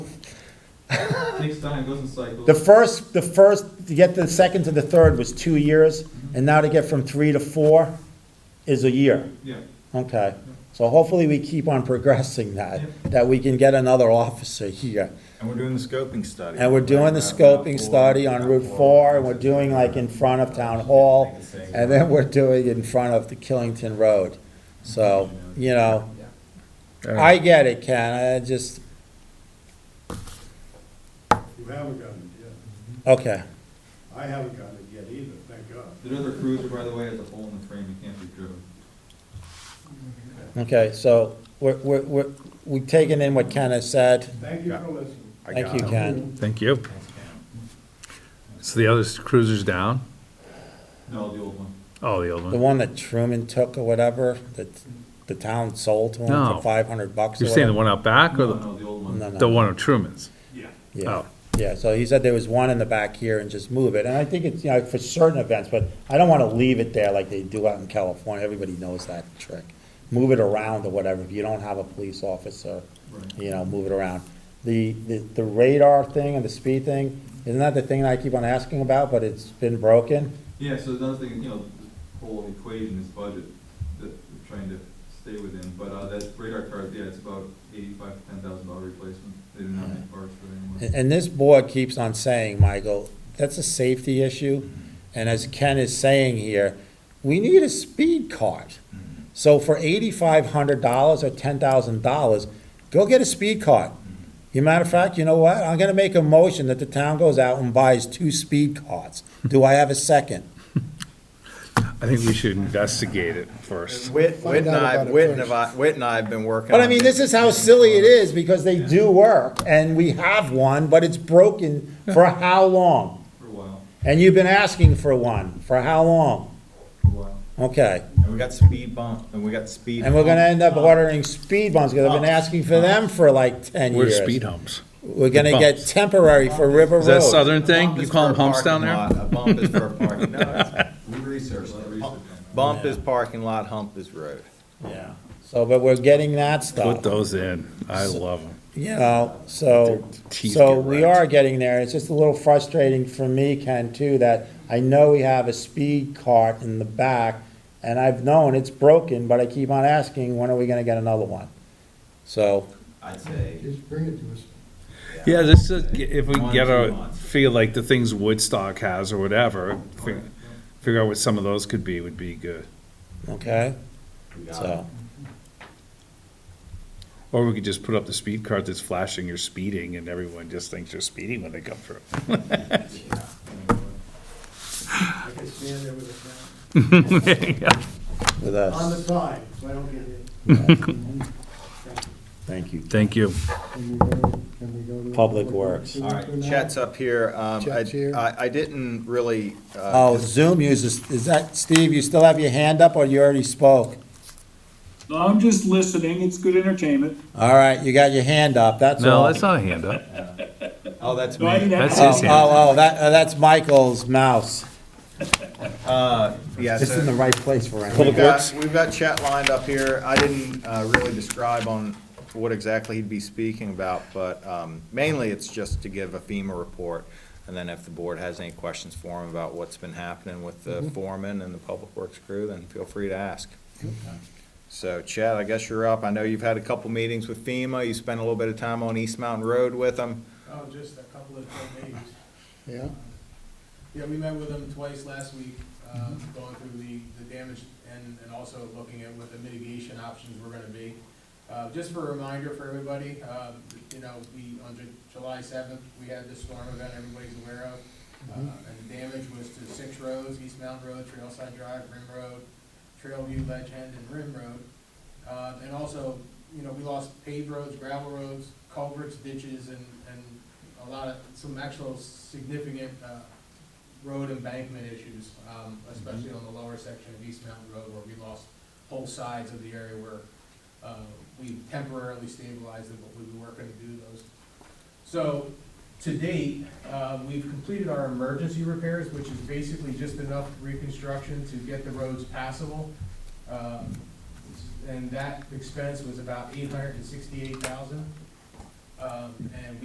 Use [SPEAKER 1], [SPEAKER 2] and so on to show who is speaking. [SPEAKER 1] Takes time, goes in cycles.
[SPEAKER 2] The first, the first, to get the second to the third was two years, and now to get from three to four is a year.
[SPEAKER 1] Yeah,
[SPEAKER 2] Okay, so hopefully we keep on progressing that, that we can get another officer here.
[SPEAKER 3] And we're doing the scoping study.
[SPEAKER 2] And we're doing the scoping study on Route Four, and we're doing like in front of Town Hall, and then we're doing in front of the Killington Road. So, you know, I get it, Ken, I just,
[SPEAKER 4] You haven't gotten it yet.
[SPEAKER 2] okay,
[SPEAKER 4] I haven't gotten it yet either, thank God.
[SPEAKER 1] the other cruiser, by the way, has a hole in the frame, it can't be driven.
[SPEAKER 2] okay, so we're, we're, we're, we've taken in what Ken has said.
[SPEAKER 4] Thank you for listening.
[SPEAKER 3] I
[SPEAKER 2] Thank
[SPEAKER 3] got
[SPEAKER 2] you,
[SPEAKER 3] it.
[SPEAKER 2] Ken.
[SPEAKER 5] Thank you. So the other cruiser's down?
[SPEAKER 1] No, the old one.
[SPEAKER 5] Oh, the old
[SPEAKER 2] The
[SPEAKER 5] one.
[SPEAKER 2] one that Truman took or whatever, that the town sold to him
[SPEAKER 5] No.
[SPEAKER 2] for five hundred bucks or
[SPEAKER 5] You're saying the
[SPEAKER 2] whatever.
[SPEAKER 5] one out back
[SPEAKER 1] No,
[SPEAKER 5] or the,
[SPEAKER 1] no, the old one.
[SPEAKER 2] No, no.
[SPEAKER 5] the one of Truman's?
[SPEAKER 1] Yeah.
[SPEAKER 2] Yeah,
[SPEAKER 5] Oh.
[SPEAKER 2] yeah, so he said there was one in the back here and just move it, and I think it's, you know, for certain events, but I don't wanna leave it there like they do out in California, everybody knows that trick. Move it around or whatever, if you don't have a police officer,
[SPEAKER 1] Right.
[SPEAKER 2] you know, move it around. The, the the radar thing and the speed thing, isn't that the thing that I keep on asking about, but it's been broken?
[SPEAKER 1] Yeah, so another thing, you know, the whole equation is budget that we're trying to stay within, but, uh, that radar card, yeah, it's about eighty-five to ten thousand dollar replacement. They do not make parts for it
[SPEAKER 2] And,
[SPEAKER 1] anymore.
[SPEAKER 2] and this board keeps on saying, Michael, that's a safety issue. And as Ken is saying here, we need a speed card. So for eighty-five hundred dollars or ten thousand dollars, go get a speed card. You matter of fact, you know what? I'm gonna make a motion that the town goes out and buys two speed cards. Do I have a second?
[SPEAKER 5] I think we should investigate it first.
[SPEAKER 3] Whit, Whit and
[SPEAKER 6] out
[SPEAKER 3] I,
[SPEAKER 6] about it
[SPEAKER 3] Whit and I, Whit and I have been working.
[SPEAKER 2] But I
[SPEAKER 3] on
[SPEAKER 2] mean, this is how silly it is because they do work and we have one, but it's broken for how long?
[SPEAKER 1] For a while,
[SPEAKER 2] And you've been asking for one, for how long?
[SPEAKER 1] for a while.
[SPEAKER 2] Okay.
[SPEAKER 3] And we got speed bump, and we got speed.
[SPEAKER 2] And we're gonna
[SPEAKER 3] bump.
[SPEAKER 2] end up ordering speed bumps, because I've been asking for them for like ten
[SPEAKER 5] We're
[SPEAKER 2] years.
[SPEAKER 5] speed humps.
[SPEAKER 2] We're gonna get
[SPEAKER 5] bumps.
[SPEAKER 2] temporary for River
[SPEAKER 5] Is that
[SPEAKER 2] Road.
[SPEAKER 5] southern
[SPEAKER 3] Bump
[SPEAKER 5] thing? You
[SPEAKER 3] is
[SPEAKER 5] call
[SPEAKER 3] for
[SPEAKER 5] them
[SPEAKER 3] a
[SPEAKER 5] humps down
[SPEAKER 3] parking
[SPEAKER 5] there?
[SPEAKER 3] lot. A bump is for a parking, no, it's- we researched
[SPEAKER 1] Lot of research
[SPEAKER 3] it.
[SPEAKER 1] on
[SPEAKER 3] Bump-
[SPEAKER 1] that.
[SPEAKER 3] Bump is parking lot, hump is road.
[SPEAKER 2] Yeah. So, but we're getting that
[SPEAKER 5] Put
[SPEAKER 2] stuff,
[SPEAKER 5] those in. I love them.
[SPEAKER 2] you know, so,
[SPEAKER 5] Their teeth
[SPEAKER 2] so
[SPEAKER 5] get
[SPEAKER 2] we
[SPEAKER 5] wrecked.
[SPEAKER 2] are getting there. It's just a little frustrating for me, Ken, too, that I know we have a speed cart in the back, and I've known it's broken, but I keep on asking, when are we gonna get another one? So,
[SPEAKER 3] I'd say.
[SPEAKER 6] Just bring it to us.
[SPEAKER 5] Yeah, this is, if we
[SPEAKER 3] One,
[SPEAKER 5] get
[SPEAKER 3] two
[SPEAKER 5] a,
[SPEAKER 3] months.
[SPEAKER 5] feel like the things Woodstock has or whatever, fi- figure out what some of those could be, would be good.
[SPEAKER 2] okay,
[SPEAKER 3] we got
[SPEAKER 2] so,
[SPEAKER 5] Or we could just put up the speed cart that's flashing you're speeding and everyone just thinks you're speeding when they come through.
[SPEAKER 4] I can stand there with
[SPEAKER 2] with
[SPEAKER 4] a, on the
[SPEAKER 2] us.
[SPEAKER 4] side, so I don't get hit.
[SPEAKER 2] Thank you.
[SPEAKER 5] Thank you.
[SPEAKER 6] Can we go- can we go to-
[SPEAKER 2] Public Works.
[SPEAKER 3] All right, Chet's up here. Um, I,
[SPEAKER 6] Chet's here.
[SPEAKER 3] I- I didn't really, uh,
[SPEAKER 2] Oh, Zoom uses, is that, Steve, you still have your hand up or you already spoke?
[SPEAKER 7] No, I'm just listening. It's good entertainment.
[SPEAKER 2] All right, you got your hand up, that's all.
[SPEAKER 5] No, that's not a hand up.
[SPEAKER 3] oh, that's
[SPEAKER 7] No, I
[SPEAKER 3] me.
[SPEAKER 7] didn't
[SPEAKER 5] That's
[SPEAKER 7] ask.
[SPEAKER 2] Oh,
[SPEAKER 5] his hand.
[SPEAKER 2] oh, oh, that, uh, that's Michael's mouse.
[SPEAKER 3] Uh, yeah,
[SPEAKER 2] It's
[SPEAKER 3] so-
[SPEAKER 2] in the right place for him.
[SPEAKER 3] We've got, we've got chat lined up here. I didn't uh, really describe on what exactly he'd be speaking about, but um, mainly it's just to give a FEMA report. And then if the board has any questions for him about what's been happening with the foreman and the public works crew, then feel free to ask. So Chad, I guess you're up. I know you've had a couple meetings with FEMA. You spent a little bit of time on East Mountain Road with them.
[SPEAKER 8] Oh, just a couple of quick meetings.
[SPEAKER 6] Yeah,
[SPEAKER 8] Yeah, we met with them twice last week, um, going through the, the damage and, and also looking at what the mitigation options were gonna be. Uh, just for a reminder for everybody, um, you know, we, on Ju- July seventh, we had this storm event everybody's aware of. Uh, and the damage was to six roads, East Mountain Road, Trailside Drive, Rim Road, Trailview, Ledge End, and Rim Road. Uh, and also, you know, we lost paved roads, gravel roads, culverts, ditches, and, and a lot of, some actual significant, uh, road embankment issues, um, especially on the lower section of East Mountain Road where we lost whole sides of the area where, uh, we temporarily stabilized it, but we were gonna do those. So, to date, uh, we've completed our emergency repairs, which is basically just enough reconstruction to get the roads passable. Um, And that expense was about eight hundred and sixty-eight thousand. Um, and we